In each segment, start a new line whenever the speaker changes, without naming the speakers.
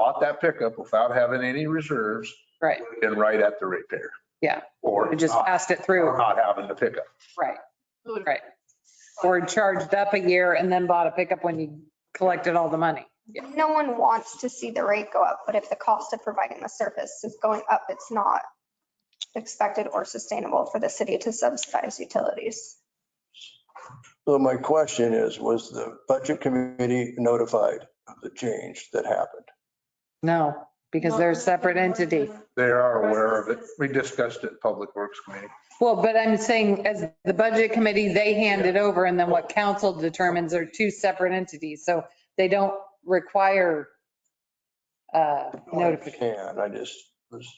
bought that pickup without having any reserves,
Right.
and right at the ratepayer.
Yeah.
Or
We just
not-
passed it
or
through.
not having the pickup.
Right. Right. Or charged up a year and then bought a pickup when you collected all the money.
No one wants to see the rate go up, but if the cost of providing the service is going up, it's not expected or sustainable for the city to subsidize utilities.
So my question is, was the budget committee notified of the change that happened?
No, because they're a separate entity.
They are aware of it. We discussed it in Public Works Committee.
Well, but I'm saying as the budget committee, they hand it over and then what council determines are two separate entities. So they don't require uh, notification.
Can, I just was,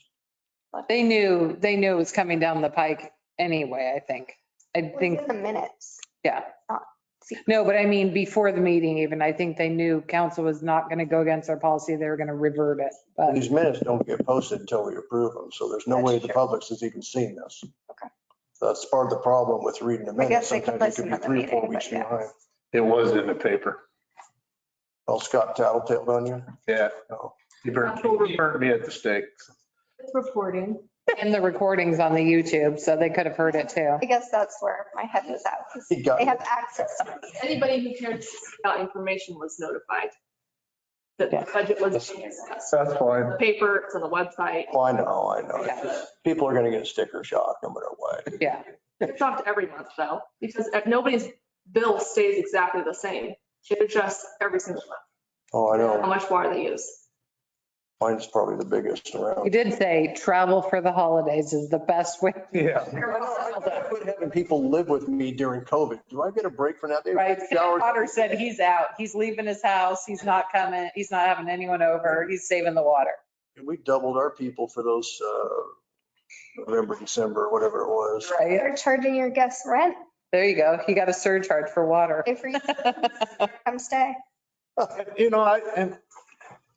They knew, they knew it was coming down the pike anyway, I think. I
It was
think,
in the minutes.
yeah.
Not-
No, but I mean, before the meeting even, I think they knew council was not going to go against our policy. They were going to revert it. But
these minutes don't get posted until we approve them, so there's no way the public has even seen this.
Okay.
That's part of the problem with reading the
I
minutes.
guess they could
Sometimes it
listen to
could be
the
three or four
meeting,
weeks
but yeah.
behind.
It was in the paper.
Oh, Scott tattletaled on you?
Yeah.
Oh.
He burned, he burned me at the stake.
It's reporting.
in the recordings on the YouTube, so they could have heard it too.
I guess that's where my head was at. 'cause
He got
They
you.
have access to it.
Anybody who cared to seek out information was notified that the budget was being discussed.
That's fine.
The paper, it's on the website.
Oh, I know, I know. It's
Yeah.
just- People are going to get sticker shock no matter what.
Yeah.
It's shocked every month though, because if nobody's bill stays exactly the same. It adjusts every single month,
Oh, I
how
know.
much water they use.
Mine's probably the biggest
You
around.
did say travel for the holidays is the best way.
Yeah.
Having people live with me during COVID, do I get a break from that? They
Right.
shower-
Potter said he's out. He's leaving his house. He's not coming. He's not having anyone over. He's saving the water.
And we doubled our people for those, uh, November, December, whatever it was.
Right.
They're charging your guests rent
There you go. He got a surcharge for water.
if you come stay.
You know, I, and,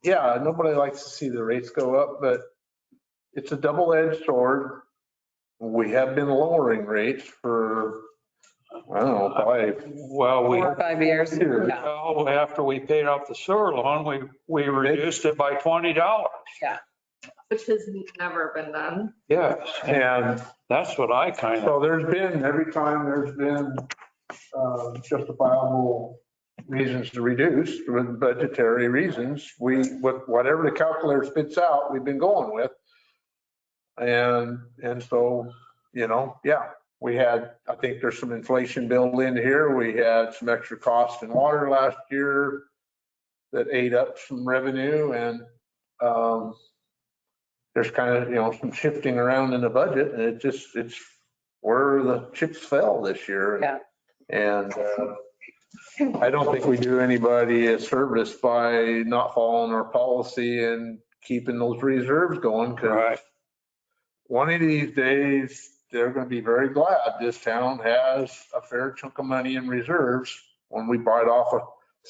yeah, nobody likes to see the rates go up, but it's a double-edged sword. We have been lowering rates for, I don't know, probably
Well, we,
Four or five years.
Here.
Yeah.
well, after we paid off the sewer loan, we, we reduced it by twenty dollars.
which has never been done.
Yes,
and
that's what I kind of,
So there's been, every time there's been uh, justifiable reasons to reduce, with budgetary reasons, we, with whatever the calculator spits out, we've been going with. And, and so, you know, yeah, we had, I think there's some inflation built in here. We had some extra cost in water last year that ate up some revenue and um, there's kind of, you know, some shifting around in the budget and it just, it's where the chips fell this year.
Yeah.
And uh, I don't think we do anybody a service by not following our policy and keeping those reserves going. 'cause
right,
one of these days, they're going to be very glad this town has a fair chunk of money in reserves when we bite off a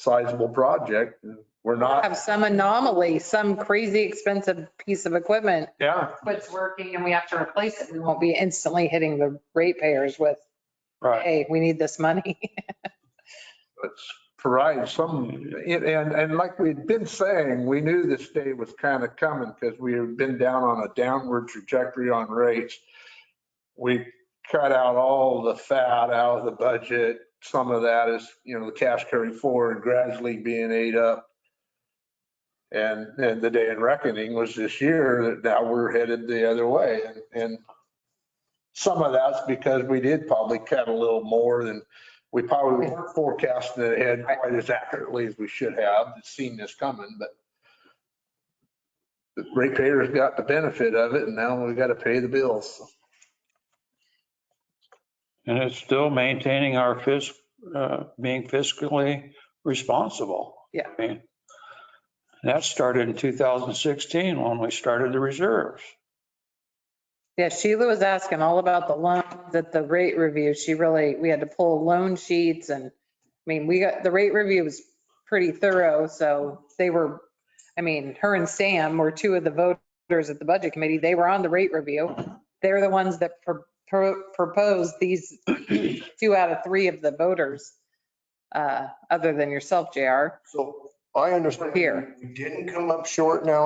sizable project. We're not,
Have some anomaly, some crazy expensive piece of equipment
yeah,
quits working and we have to replace it. We won't be instantly hitting the ratepayers with,
right.
hey, we need this money.
let's provide some, and, and like we'd been saying, we knew this day was kind of coming because we had been down on a downward trajectory on rates. We cut out all the fat out of the budget. Some of that is, you know, the cash carry forward gradually being ate up. And, and the day in reckoning was this year, that now we're headed the other way. And, and some of that's because we did probably cut a little more than, we probably weren't forecasting it ahead quite as accurately as we should have, seen this coming, but the ratepayers got the benefit of it and now we got to pay the bills.
And it's still maintaining our fisc, uh, being fiscally responsible.
Yeah.
I mean, That started in 2016 when we started the reserves.
Yeah, Sheila was asking all about the loans at the rate review. She really, we had to pull loan sheets and, I mean, we got, the rate review was pretty thorough, so they were, I mean, her and Sam were two of the voters at the budget committee. They were on the rate review. They're the ones that pro- pro- proposed these two out of three of the voters, uh, other than yourself, JR.
So I understand.
Here.
We didn't come up short now